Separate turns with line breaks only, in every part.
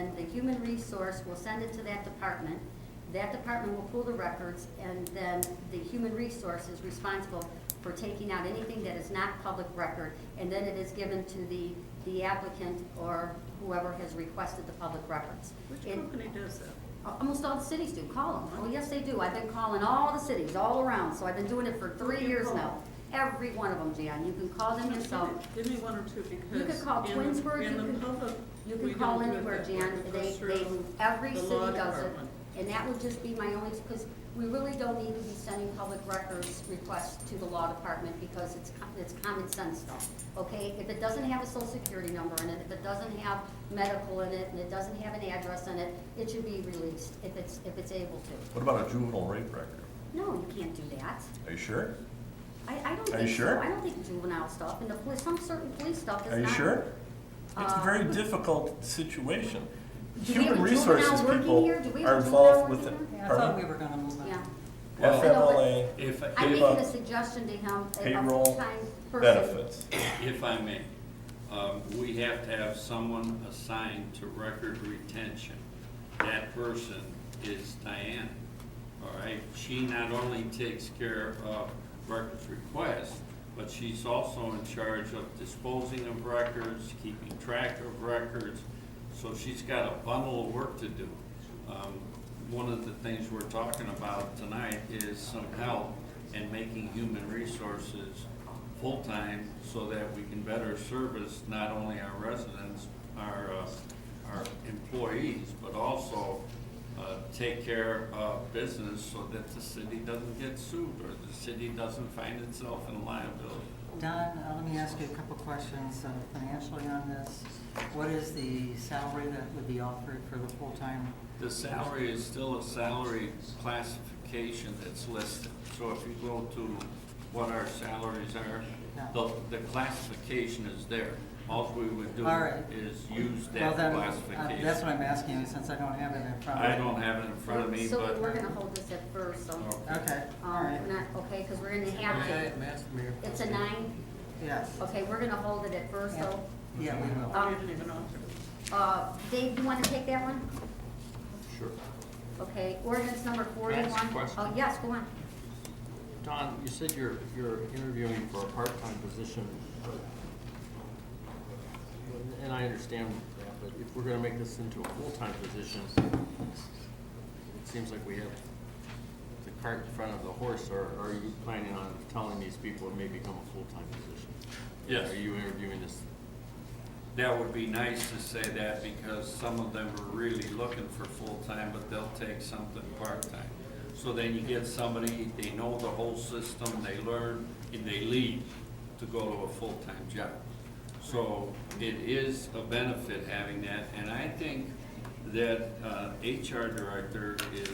then the human resource will send it to that department. That department will pull the records, and then the human resource is responsible for taking out anything that is not public record, and then it is given to the, the applicant or whoever has requested the public records.
Which
It-
company does that?
Almost all the cities do, call them. Oh, yes, they do. I've been calling all the cities, all around, so I've been doing it for three
Who do you
years
call?
now. Every one of them, Jan, you can call them yourself.
Give me one or two because.
could call
in-
Twinsburg,
In
you
the
could-
public.
You
we
can call
don't do it
anywhere,
that way.
Jan, they,
It goes
they,
through
every
the
city
law
does it.
department.
And that would just be my only, because we really don't need to be sending public records requests to the law department because it's, co- it's common sense stuff, okay? If it doesn't have a social security number in it, if it doesn't have medical in it, and it doesn't have an address in it, it should be released if it's, if it's able to.
What about a juvenile rape record?
No, you can't do that.
Are you sure?
I, I don't
Are
think
you
so.
sure?
I don't think juvenile stuff, and the police, some certain police stuff is
Are you
not-
sure? It's a
Uh,
very difficult situation.
Do we have a
Human
juvenile
resources
working
people
here? Do we have a
are
juvenile
involved with it.
working
Yeah, I
Pardon?
thought we were gonna move
Yeah.
on.
FMLA,
If,
I'm making a
if,
Payroll-
suggestion to him, a
payroll,
full-time person.
benefits.
if I may, um, we have to have someone assigned to record retention. That person is Diana, all right? She not only takes care of records requests, but she's also in charge of disposing of records, keeping track of records. So she's got a bundle of work to do. Um, One of the things we're talking about tonight is some help in making human resources full-time so that we can better service not only our residents, our, uh, our employees, but also uh, take care of business so that the city doesn't get sued or the city doesn't find itself in liability.
Don, uh, let me ask you a couple questions uh, financially on this. What is the salary that would be offered for the full-time?
The salary is still a salary classification that's listed. So if you go to what our salaries are, the, the classification is there. All we would do
All right.
is use
Well,
that
then, uh,
classification.
That's what I'm asking you, since I don't have it in front of me.
I don't have it in front of me,
So we're
but, Oh.
gonna hold this at first, so, um,
Okay, all right,
we're not, okay, because we're gonna have to, it's a nine,
yes.
okay, we're gonna hold it at first, so.
Yeah, we will.
Um,
I didn't even offer.
Uh, Dave, you wanna take that one?
Sure.
Okay, ordinance number
I
forty-one.
ask a question?
Oh, yes, go on.
Don, you said you're, you're interviewing for a part-time position. And I understand that, but if we're gonna make this into a full-time position, it seems like we have the cart in front of the horse, or are you planning on telling these people it may become a full-time position?
Yes.
Are you interviewing this?
that would be nice to say that because some of them are really looking for full-time, but they'll take something part-time. So then you get somebody, they know the whole system, they learn, and they leave to go to a full-time job. So it is a benefit having that, and I think that uh, HR director is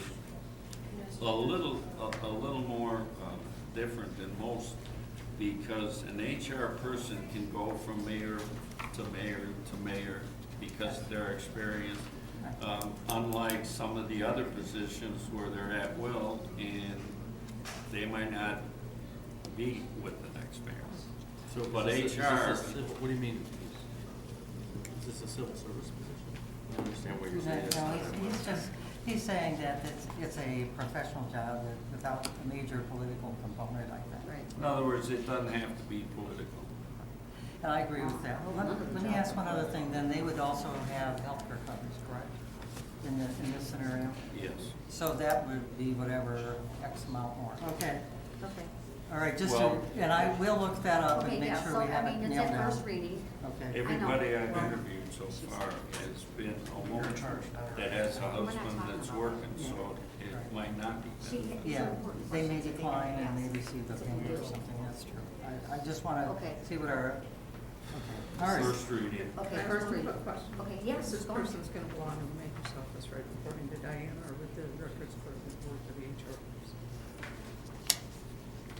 a little, a, a little more, um, different than most, because an HR person can go from mayor to mayor to mayor because of their experience. Um, unlike some of the other positions where they're at will and they might not be with the next mayor.
So is
But
this a- is this a
HR
civil- What do you mean? Is this a civil service position? I understand what you're
No,
saying. It's not
he's-
a-
he's just, he's saying that it's, it's a professional job that- without a major political component like that.
Right.
In other words, it doesn't have to be political.
And I agree with that. Well, let, let me ask one other thing, then they would also have healthcare coverage, correct? In this, in this scenario?
Yes.
So that would be whatever X amount more. Okay,
Okay.
all right, just, to-
Well-
and I will look that up
Okay,
and make
yeah, so,
sure we have
I
it
mean, it's
nailed
at
down.
first reading.
Okay,
Everybody I've interviewed so far has been a woman that has a husband that's working, so it might not be.
She-
beneficial.
yeah, they may decline and
Yes.
they receive the payment or something, that's true. I, I just wanna
Okay.
see what our, okay, all right.
First reading.
Okay,
I have
first
one
reading.
quick question.
Okay, yes,
Is This
go on.
person's gonna go on and make herself this right according to Diana or with the records for the board of the HR person?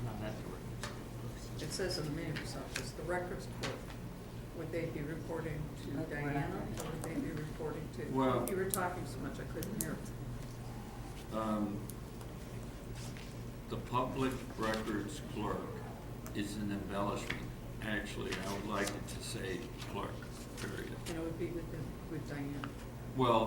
Not that direct.
It says in the mayor's office, the records clerk, would they be reporting
Uh,
to
we're not
Diana,
ready.
or would they be reporting to?
Well-
You were talking so much, I couldn't hear.
Um, The public records clerk is an embellishment. Actually, I would like it to say clerk, period.
And it would be with, the- with Diana.
Well,